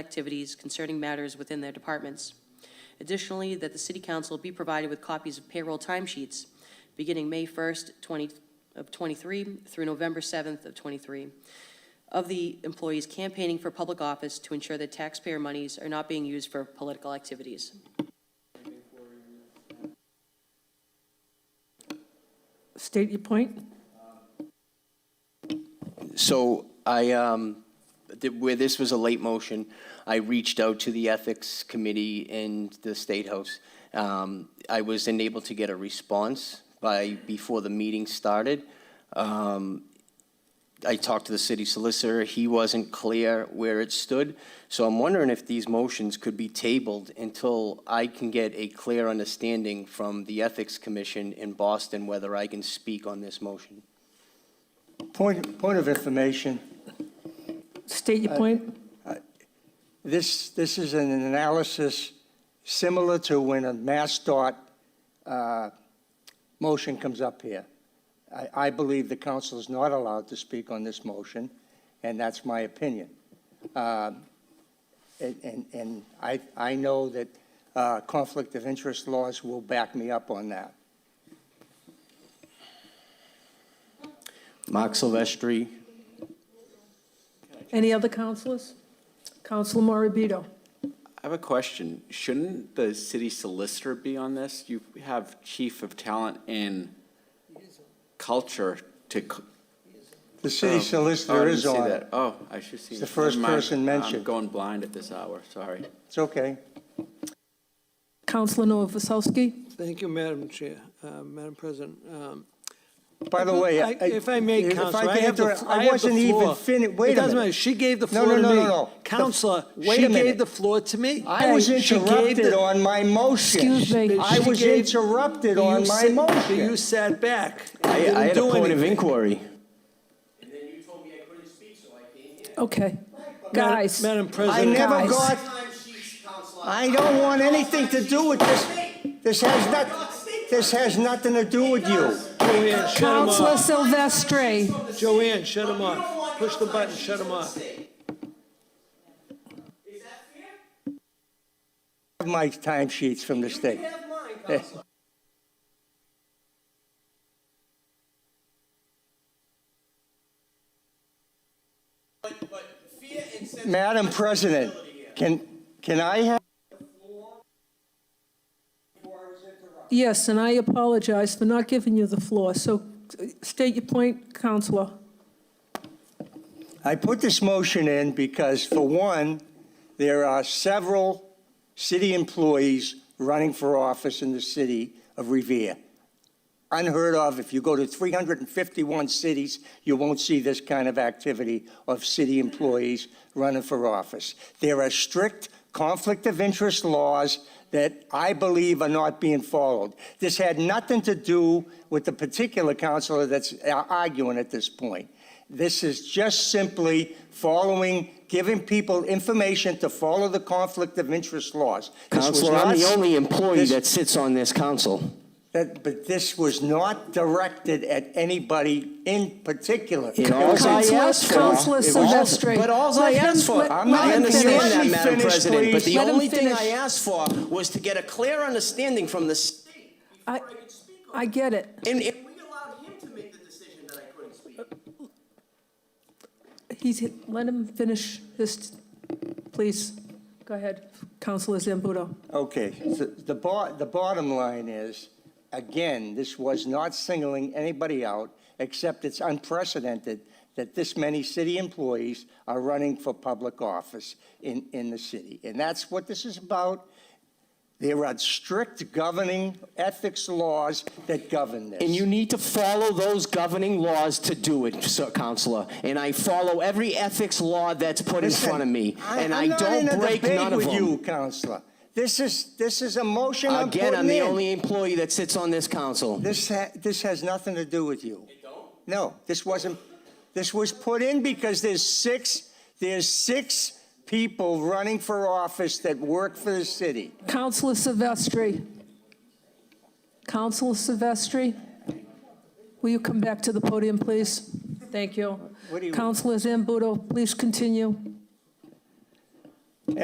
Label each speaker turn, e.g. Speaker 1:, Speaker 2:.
Speaker 1: activities concerning matters within their departments. Additionally, that the city council be provided with copies of payroll timesheets beginning May 1st, 20, of 23 through November 7th of 23 of the employees campaigning for public office to ensure that taxpayer monies are not being used for political activities.
Speaker 2: State your point.
Speaker 3: So I, um, th- where this was a late motion, I reached out to the Ethics Committee and the State House. Um, I was unable to get a response by, before the meeting started. Um, I talked to the city solicitor, he wasn't clear where it stood. So I'm wondering if these motions could be tabled until I can get a clear understanding from the Ethics Commission in Boston whether I can speak on this motion.
Speaker 4: Point, point of information,
Speaker 2: State
Speaker 5: Uh,
Speaker 2: your point.
Speaker 4: this, this is an analysis similar to when a Mass dot uh, motion comes up here. I, I believe the council is not allowed to speak on this motion, and that's my opinion. Um, And, and- and I, I know that uh, conflict of interest laws will back me up on that.
Speaker 3: Mark Silvestri,
Speaker 2: Any other councilors? Council Morabito.
Speaker 6: I have a question. Shouldn't the city solicitor be on this? You have chief of talent and culture to. c-
Speaker 4: The city
Speaker 6: Oh,
Speaker 4: solicitor
Speaker 6: I didn't
Speaker 4: is
Speaker 6: see
Speaker 4: on it.
Speaker 6: that. Oh, I should see.
Speaker 4: It's the first
Speaker 6: Never mind.
Speaker 4: person mentioned.
Speaker 6: I'm going blind at this hour, sorry.
Speaker 4: It's okay.
Speaker 2: Councilor Novoselsky.
Speaker 5: Thank you, Madam Chair, uh, Madam President. Um,
Speaker 4: By the way, I-
Speaker 5: I- If I may,
Speaker 4: if I
Speaker 5: Counselor, I
Speaker 4: can
Speaker 5: have the,
Speaker 4: interrupt- I
Speaker 5: I have the
Speaker 4: wasn't even
Speaker 5: floor.
Speaker 4: fini- wait a
Speaker 5: It doesn't
Speaker 4: minute.
Speaker 5: matter, she gave the
Speaker 4: No,
Speaker 5: floor to
Speaker 4: no,
Speaker 5: me.
Speaker 4: no, no, no. The-
Speaker 5: Counselor,
Speaker 4: wait a
Speaker 5: she
Speaker 4: minute.
Speaker 5: gave the floor to me.
Speaker 4: I was
Speaker 5: She gave
Speaker 4: interrupted
Speaker 5: the-
Speaker 4: on my motion.
Speaker 2: Excuse me.
Speaker 4: I
Speaker 5: she
Speaker 4: was
Speaker 5: gave-
Speaker 4: interrupted on
Speaker 5: you
Speaker 4: my
Speaker 5: sit-
Speaker 4: motion.
Speaker 5: You sat back. and
Speaker 3: I,
Speaker 5: didn't
Speaker 3: I had a
Speaker 5: do
Speaker 3: point of
Speaker 5: anything.
Speaker 3: inquiry.
Speaker 2: Okay.
Speaker 5: Madam-
Speaker 2: Guys.
Speaker 5: Madam
Speaker 4: I
Speaker 5: President.
Speaker 4: never
Speaker 2: Guys.
Speaker 4: got, I don't want anything to do with this. This has not, this has nothing to do with you.
Speaker 5: Joanne, shut him
Speaker 2: Councilor
Speaker 5: off.
Speaker 2: Silvestri.
Speaker 5: Joanne, shut him off. Push the button, shut him off.
Speaker 4: I have My timesheets from the state. Madam President, can, can I have?
Speaker 2: Yes, and I apologize for not giving you the floor. So uh, state your point, Councilor.
Speaker 4: I put this motion in because, for one, there are several city employees running for office in the city of Revere. Unheard of. If you go to 351 cities, you won't see this kind of activity of city employees running for office. There are strict conflict of interest laws that I believe are not being followed. This had nothing to do with the particular counselor that's uh, arguing at this point. This is just simply following, giving people information to follow the conflict of interest laws. This was
Speaker 3: Counselor, I'm the
Speaker 4: not-
Speaker 3: only employee
Speaker 4: this-
Speaker 3: that sits on this council.
Speaker 4: that, but this was not directed at anybody in particular.
Speaker 3: It all- Alls I
Speaker 2: Councilor-
Speaker 3: asked for-
Speaker 2: Councilor
Speaker 3: it was-
Speaker 2: Silvestri.
Speaker 3: But alls I
Speaker 2: Let him-
Speaker 3: asked for,
Speaker 2: let-
Speaker 3: I
Speaker 4: I'm not
Speaker 2: let him
Speaker 4: understanding
Speaker 2: finish.
Speaker 3: understand that,
Speaker 4: Let me
Speaker 3: Madam
Speaker 4: finish,
Speaker 3: President, but
Speaker 4: please.
Speaker 3: the
Speaker 2: Let him
Speaker 3: only thing I
Speaker 2: finish.
Speaker 3: asked for was to get a clear understanding from the state.
Speaker 2: I- I get it.
Speaker 3: And and we allowed him to make the decision that I couldn't speak.
Speaker 2: He's, let him finish his, please. Go ahead, Councilor Zambudo.
Speaker 4: Okay, so the bo, the bottom line is, again, this was not singling anybody out, except it's unprecedented that this many city employees are running for public office in, in the city. And that's what this is about. There are strict governing ethics laws that govern this.
Speaker 3: And you need to follow those governing laws to do it, sir, Counselor. And I follow every ethics law that's put in
Speaker 4: Listen,
Speaker 3: front of me,
Speaker 4: I-
Speaker 3: and
Speaker 4: I'm
Speaker 3: I
Speaker 4: not in
Speaker 3: don't
Speaker 4: a
Speaker 3: break
Speaker 4: debate
Speaker 3: none of
Speaker 4: with you,
Speaker 3: them.
Speaker 4: Counselor. This is, this is a motion I'm putting
Speaker 3: Again,
Speaker 4: in.
Speaker 3: I'm the only employee that sits on this council.
Speaker 4: This, ha- this has nothing to do with you. It don't? No, this wasn't, this was put in because there's six, there's six people running for office that work for the city.
Speaker 2: Councilor Silvestri. Councilor Silvestri, will you come back to the podium, please? Thank you.
Speaker 4: What do you-
Speaker 2: Councilor Zambudo, please continue.